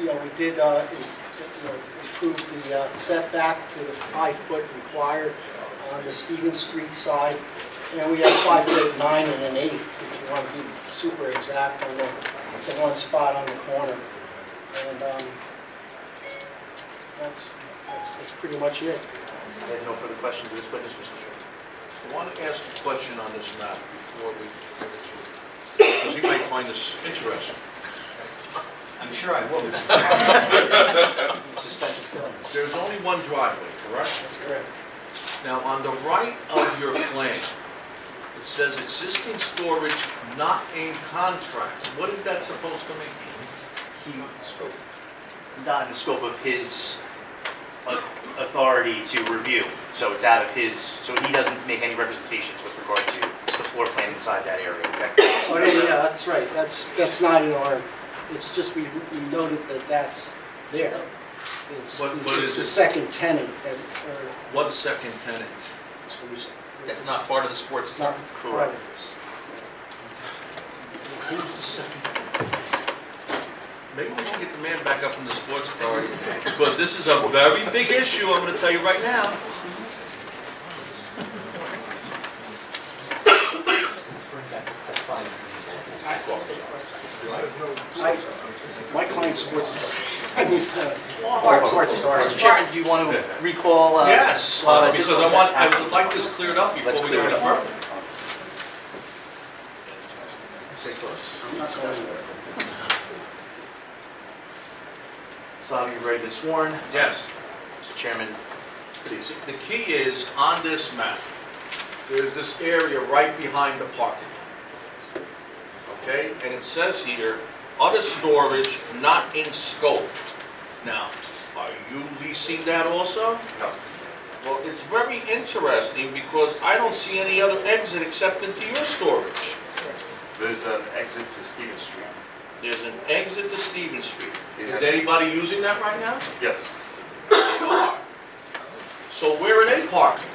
you know, we did, uh, in- you know, improve the uh, setback to the five-foot required on the Stevens Street side, and we have five foot nine and an eighth, if you want to be super exact on the, the one spot on the corner. And, um, that's, that's, that's pretty much it. I have no further questions of this witness, Mr. Chairman. I want to ask a question on this map before we, because you might find this interesting. I'm sure I will, Mr. The Suspense is killing. us. There's only one driveway, correct? That's correct. Now, on the right of your plan, it says existing storage not in contract. What is that supposed to mean? He- Not in the scope of his au- authority to review, so it's out of his, so he doesn't make any representations with regard to the floor plan inside that area, exactly. Oh, yeah, yeah, that's right, that's, that's not in our, it's just we we noted that that's there. It's, What- what it's is the it? second tenant that, or, What second tenant? it's what we s- That's not part of the sports. it's not Correct. correct. Who's the second? Maybe we should get the man back up from the sports authority, because this is a very big issue, I'm gonna tell you right now. I- My client's sports, I mean, uh, sports is ours. Mr. Chairman, do you want to recall? uh, Yes, uh, because just- I want, I would like this cleared up before Let's we clear go it any up. further. I'm not going anywhere. So you've already been sworn. Yes, Mr. Chairman, please. the key is, on this map, there's this area right behind the parking lot. Okay, and it says here, other storage not in scope. Now, are you leasing that also? No. Well, it's very interesting, because I don't see any other exit except into your storage. There's an exit to Stevens Street. There's an exit to Stevens Street. It Is has- anybody using that right now? Yes. They are. So where are they parking?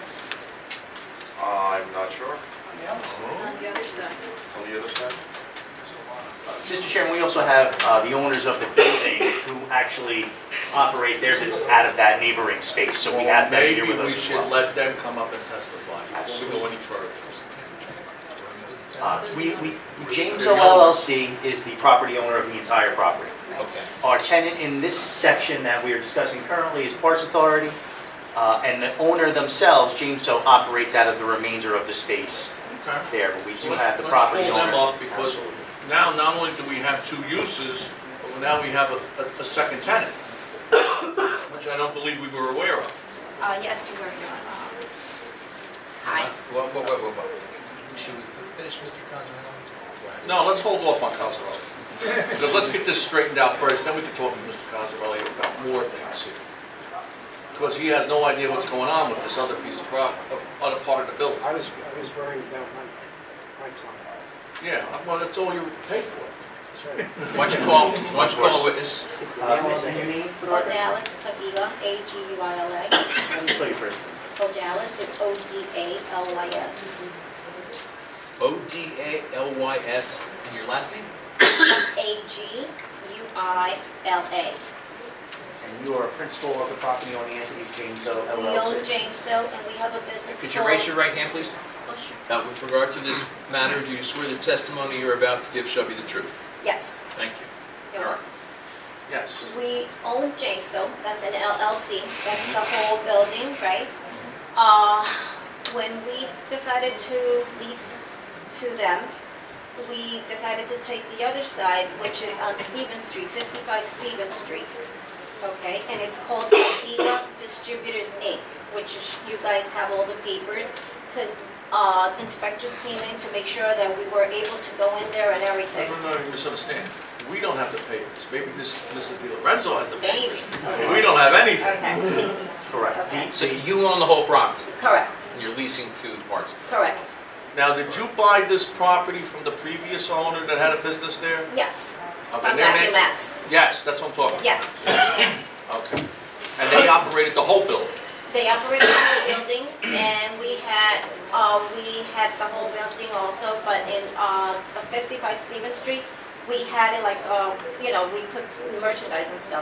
I'm not sure, Oh, On the other side. on the other side. Mr. Chairman, we also have uh, the owners of the building who actually operate their business out of that neighboring space, so we have them here Maybe with we us as should well. let them come up and testify before we go any further. Uh, We, we, James O LLC is the property owner of the entire property. Okay. Our tenant in this section that we are discussing currently is Parks Authority, uh, and the owner themselves, James O, operates out of the remainder of the space Okay. there, but we do So let's- have the property Let's pull them owner. Uh, up because now, not only do we have two uses, but now we have a, a a second tenant, which I don't believe we were aware of. Uh, yes, you were, Your Honor. Hi. Whoa, whoa, whoa, whoa, whoa. Should we finish Mr. Cosarelli? No, let's hold off on Cosarelli. Because let's get this straightened out first, then we can talk to Mr. Cosarelli about more things. Because he has no idea what's going on with this other piece of property, other part of the building. I was, I was worried about my, my client. Yeah, well, that's all you paid for. That's right. Why don't you call, why don't you call a witness? Uh, Miss, and your name? Odalis Pavila, A-G-U-I-L-A. Let me spell your first name. Odalis is O-D-A-L-Y-S. O-D-A-L-Y-S, and your last name? Mm-hmm. A-G-U-I-L-A. And you are a principal of the property owning entity, James O We own LLC. James So, and we have a business called... Could you raise your right hand, please? Oh, sure. Now, with regard to this matter, do you swear the testimony you're about to give shall be the truth? Yes. Thank you. Your All Honor. right. Yes. We own Jaso, that's an LLC, that's the whole building, right? Uh, When we decided to lease to them, we decided to take the other side, which is on Stevens Street, 55 Stevens Street, okay? And it's called Avila Distributors Inc., which is, you guys have all the papers, because inspectors came in to make sure that we were able to go in there and No, everything. no, no, you misunderstand. We don't have the papers. Maybe this, Mr. Di Lorenzo has the Maybe, papers. We okay, don't have anything. okay, Correct. Okay. So you own the whole property, correct. and you're leasing to Parks? Correct, Now, did you buy this property from the previous owner that had a business there? yes. Of From their Mac name? and Max, Yes, that's what I'm talking about. yes. Okay. And they operated the whole building? They operated the whole building, and we had, uh, we had the whole building also, but in, uh, the 55 Stevens Street, we had it like, uh, you know, we put merchandise and stuff.